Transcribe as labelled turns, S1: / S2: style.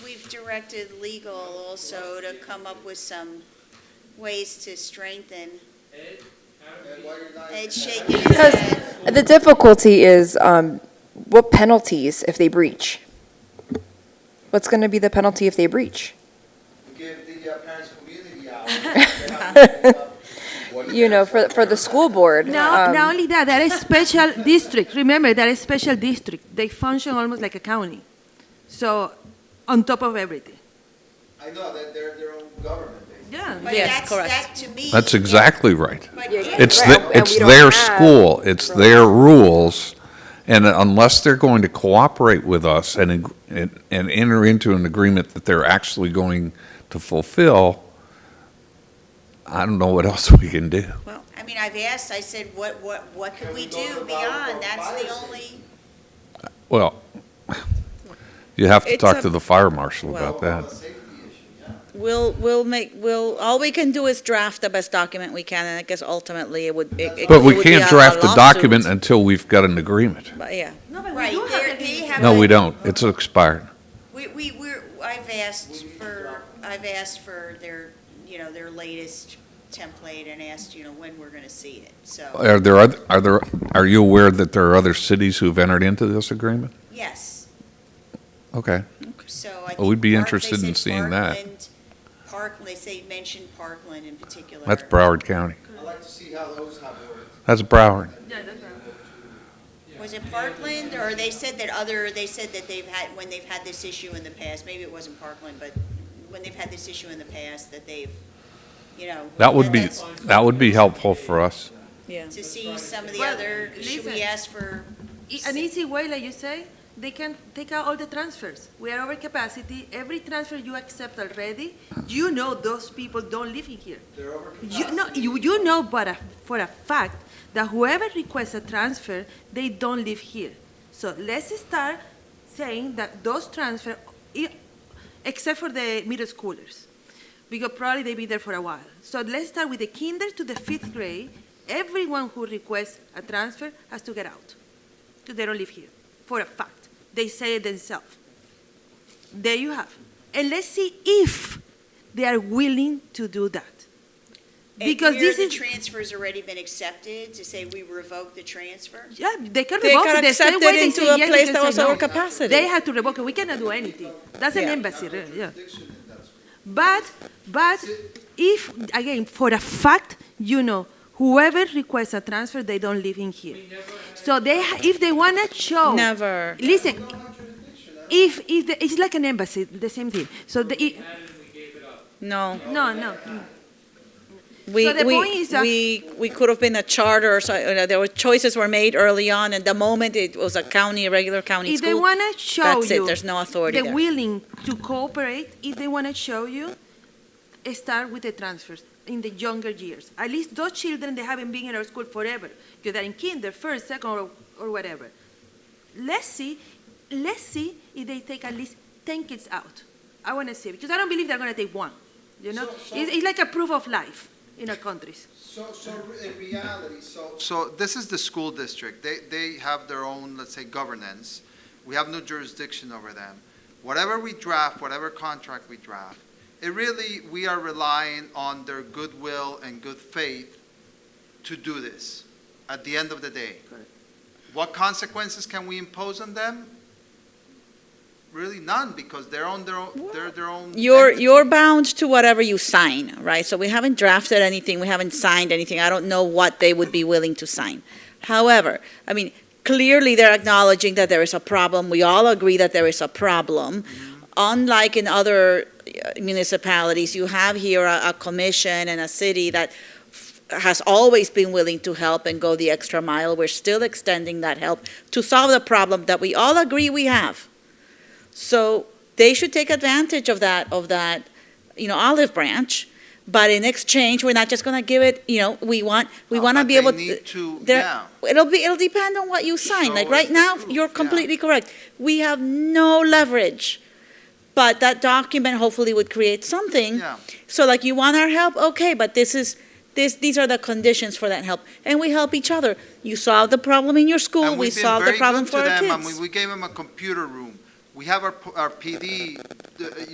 S1: directed legal also to come up with some ways to strengthen. Ed's shaking his
S2: Because-
S1: head.
S2: The difficulty is, um, what penalties if they breach? What's going to be the penalty if they breach?
S3: Give the uh, parents community hour. They have to make up-
S2: You know, for, for the school board.
S4: No,
S2: um,
S4: not only that, they're a special district. Remember, they're a special district. They function almost like a county. So, on top of everything.
S3: I know that they're their own government, basically.
S4: Yeah.
S1: But
S4: Yes,
S1: that's,
S4: correct.
S1: that to me.
S5: That's exactly right.
S1: But
S2: Yeah,
S1: if-
S5: It's,
S2: Right,
S5: the-
S2: and we
S5: it's
S2: don't
S5: their
S2: have
S5: school, it's their rules, and unless they're going to cooperate with us and, ag- and and enter into an agreement that they're actually going to fulfill, I don't know what else we can do.
S1: Well, I mean, I've asked, I said, what, what, what could
S3: Can
S1: we
S3: we go to
S1: do
S3: the Bible
S1: beyond?
S3: for
S1: That's the
S3: piracy?
S1: only.
S5: Well, you have to
S6: It's
S5: talk
S6: a-
S5: to the fire marshal
S3: Well,
S5: about
S3: well,
S5: that.
S3: a safety issue, yeah.
S6: We'll, we'll make, we'll, all we can do is draft the best document we can, and I guess ultimately it would. it- it
S5: But we
S6: would be
S5: can't
S6: a- a
S5: draft a document
S6: lawsuit.
S5: until we've got an agreement.
S6: But, yeah.
S4: No, but
S1: Right, they're- they have.
S5: No,
S1: a-
S5: we don't. It's expired.
S1: We, we, we're, I've asked for, I've asked for their, you know, their latest template and asked, you know, when we're gonna see it, so,
S5: Are there, oth- are there, are you aware that there are other cities who've entered into this agreement?
S1: yes,
S5: Okay.
S1: so I think.
S5: Well, we'd be
S1: Park- they
S5: interested in
S1: said
S5: seeing that.
S1: Parkland- Park, they say, mentioned Parkland in particular.
S5: That's Broward County.
S3: I'd like to see how those have worked.
S5: That's Broward.
S1: Was it Parkland, or they said that other, they said that they've had, when they've had this issue in the past, maybe it wasn't Parkland, but when they've had this issue in the past, that they've, you know.
S5: That would be,
S1: that's-
S5: that would be helpful for us.
S6: Yeah.
S1: To see some of the
S4: Well,
S1: other, should we
S4: listen.
S1: ask for
S4: E- An easy way, like you say, they can take out all the transfers. We are over capacity. Every transfer you accept already, you know those people don't live in here.
S3: They're over
S4: You know, you, you know but a, for a fact that whoever requests a transfer, they don't live here. So let's start saying that those transfer, i- except for the middle schoolers, because probably they be there for a while. So let's start with the kinder to the fifth grade. Everyone who requests a transfer has to get out, because they don't live here, for a fact. They say it themselves. There you have. And let's see if they are willing to do that.
S1: And
S4: Because
S1: where
S4: this
S1: the
S4: is-
S1: transfer's already been accepted, to say we revoke the transfer?
S4: Yeah, they can
S6: They
S4: revoke
S6: can
S4: it the same
S6: accept
S4: way
S6: it
S4: they
S6: into
S4: say
S6: a
S4: yes, they
S6: place
S4: can
S6: that
S4: say
S6: was
S4: no.
S6: over capacity.
S4: They had to revoke it. We cannot do anything. That's an
S6: Yeah.
S4: embassy, really, yeah.
S3: Jurisdiction in that school.
S4: But, but if, again, for a fact, you know, whoever requests a transfer, they don't live in here. So they, ha- if they wanna show.
S6: Never.
S4: Listen,
S3: No jurisdiction, I
S4: if, if, the- it's like an embassy, the same thing. So the, i-
S6: No.
S4: no, no.
S6: We,
S4: So the
S6: we,
S4: point is that-
S6: we, we could have been a charter, or so, you know, there were choices were made early on, and the moment it was a county, a regular county
S4: If they
S6: school,
S4: wanna show you.
S6: that's it, there's no authority
S4: They're
S6: there.
S4: willing to cooperate, if they want to show you, eh, start with the transfers in the younger years. At least those children, they haven't been in our school forever, because they're in kinder, first, second, or, or whatever. Let's see, let's see if they take at least 10 kids out. I want to see, because I don't believe they're going to take one, you know?
S3: So- so-
S4: It's, it's like a proof of life in our countries.
S3: So, so in reality, so. So this is the school district. They, they have their own, let's say, governance. We have no jurisdiction over them. Whatever we draft, whatever contract we draft, it really, we are relying on their goodwill and good faith to do this at the end of the day.
S4: Correct.
S3: What consequences can we impose on them? Really none, because they're on their own, they're their own.
S6: You're,
S3: entity.
S6: you're bound to whatever you sign, right? So we haven't drafted anything, we haven't signed anything, I don't know what they would be willing to sign. However, I mean, clearly they're acknowledging that there is a problem, we all agree that there is a problem. Unlike in other uh, municipalities, you have here a, a commission and a city that f- has always been willing to help and go the extra mile, we're still extending that help to solve the problem that we all agree we have. So they should take advantage of that, of that, you know, olive branch. But in exchange, we're not just gonna give it, you know, we want, we
S3: Uh,
S6: wanna
S3: but
S6: be able.
S3: They need to,
S6: there-
S3: yeah.
S6: It'll be, it'll depend on what you sign.
S3: Show
S6: Like
S3: us
S6: right
S3: the
S6: now,
S3: proof,
S6: you're
S3: yeah.
S6: completely correct. We have no leverage. But that document hopefully would create something.
S3: Yeah.
S6: So like you want our help, okay, but this is, this, these are the conditions for that help. And we help each other. You solve the problem in your school,
S3: And
S6: we
S3: we've been
S6: solve the
S3: very
S6: problem
S3: good
S6: for
S3: to
S6: our
S3: them.
S6: kids.
S3: I mean, we gave them a computer room. We have our, p- our PD, uh,